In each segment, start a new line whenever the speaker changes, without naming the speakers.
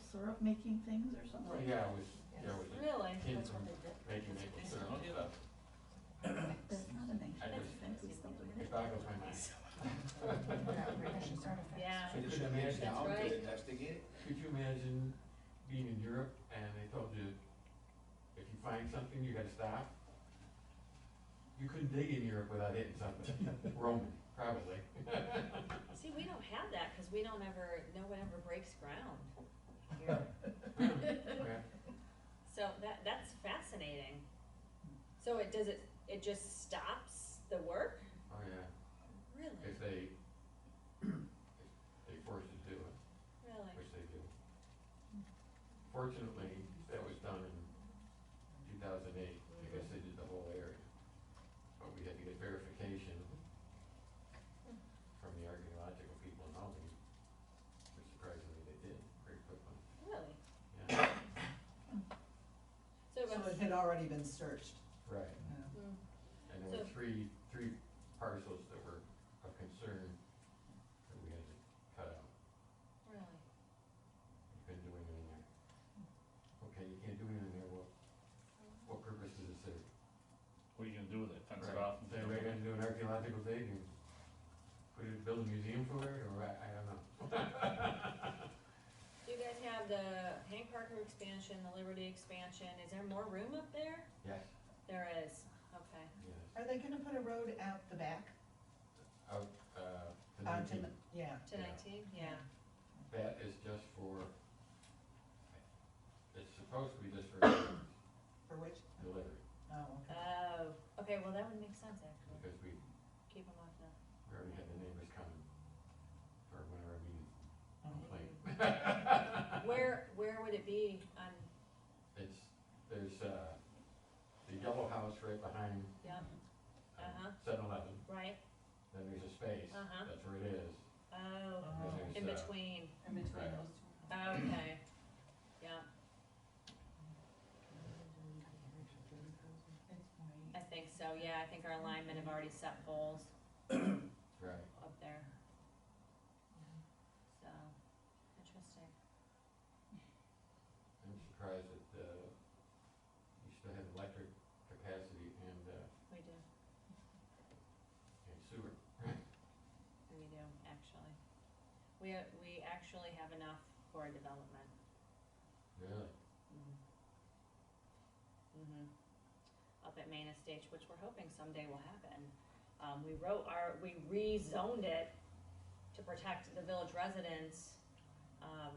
syrup making things or something?
Yeah, with, yeah, with the
Really?
kids
That's
from
what they did.
making maple syrup. I'll give up.
That's not an ancient
just-
thing, it's something.
It boggles my mind.
Yeah.
So could you
Finish
imagine,
them out,
right.
investigate.
could you imagine being in Europe and they told you, if you find something, you gotta stop? You couldn't dig in Europe without hitting something, Roman, probably.
See, we don't have that, cause we don't ever, no one ever breaks ground here.
Okay.
So that, that's fascinating. So it, does it, it just stops the work?
Oh, yeah,
Really?
if they, if they force you to do it.
Really?
which they do. Fortunately, that was done in two thousand eight, I guess they did the whole area. But we had to get verification from the archaeological people in Albany, which surprisingly they did very quickly.
Really?
Yeah,
So it
So it
was,
had already been searched.
right.
Mm.
And there were
So-
three, three parcels that were of concern that we had to cut out.
really?
You couldn't do anything there. Okay, you can't do anything there, well, what purpose does it serve?
What are you gonna do with it? Fence
Right.
it off? and
Is anybody gonna do an archaeological dig and put it, build a museum for it, or I, I don't know.
Do you guys have the Hank Parker expansion, the Liberty expansion? Is there more room up there?
Yes.
There is, okay.
Yes,
Are they gonna put a road out the back?
out, uh, the
Out to,
new-
the- yeah.
To
Yeah.
nineteen, yeah.
that is just for, it's supposed to be just for delivery,
For which? Oh, okay.
Oh, okay, well, that would make sense, actually.
because we,
Keep them off now.
we already had the neighbors come for whenever we
Uh,
Oh.
complain.
Where, where would it be on,
It's, there's, uh, the yellow house right behind um,
yeah, Uh-huh.
seven eleven,
right?
then there's a space,
Uh-huh.
that's where it is.
Oh,
And
Oh.
then
in
there's, uh,
between,
In
Oh,
between
Right.
those two.
okay, yeah,
It's white.
I think so, yeah, I think our alignment have already set goals
Right.
up there. So, interesting,
I'm surprised that, uh, you still have electric capacity and, uh,
we do,
and sewer.
we do, actually. We, we actually have enough for development.
Really?
Mm-hmm. Up at Main Estates, which we're hoping someday will happen. Um, we wrote our, we rezoned it to protect the village residents. Um,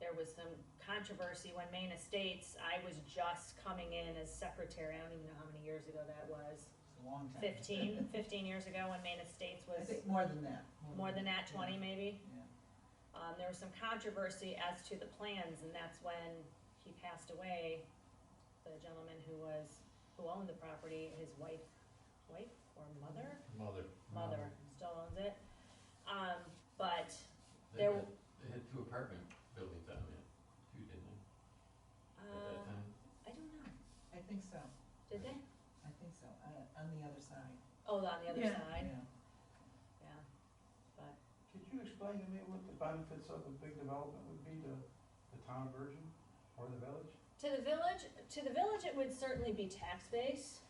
there was some controversy when Main Estates, I was just coming in as secretary, I don't even know how many years ago that was.
It's a long time.
Fifteen, fifteen years ago when Main Estates
I
was
think more than that.
more than that, twenty maybe.
Yeah.
Um, there was some controversy as to the plans, and that's when he passed away. The gentleman who was, who owned the property, his wife, wife or mother?
Mother.
Mother still owns it. Um, but,
They
There
had, they had two apartment buildings on it, two, didn't they, at
uh,
that time?
I don't know,
I think so,
did they?
I think so, uh, on the other side,
Oh, on the other
Yeah.
side,
yeah.
yeah. But,
Could you explain to me what the benefits of a big development would be to the town of Virgin or the village?
to the village, to the village, it would certainly be tax base.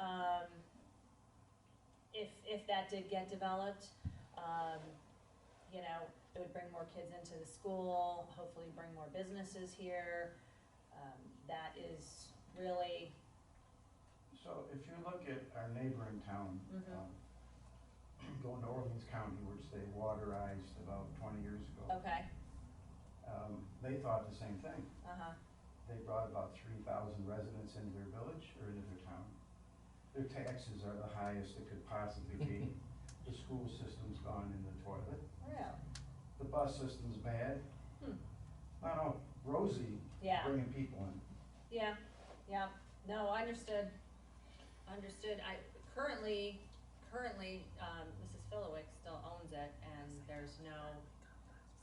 Um, if, if that did get developed, um, you know, it would bring more kids into the school, hopefully bring more businesses here. Um, that is really,
So if you look at our neighboring town,
Mhm.
um, going to Orleans County, which they waterized about twenty years ago,
okay,
um, they thought the same thing.
uh-huh,
They brought about three thousand residents into their village or into their town. Their taxes are the highest it could possibly be. The school system's gone in the toilet.
really,
The bus system's bad.
Hmm.
No, no, Rosie
yeah.
bringing people in.
Yeah, yeah, no, understood, understood, I, currently, currently, um, Mrs. Filowick still owns it, and there's no,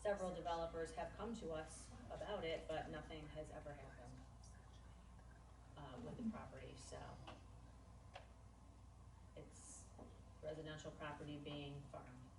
several developers have come to us about it, but nothing has ever happened, uh, with the property, so. It's residential property being farmed. Um,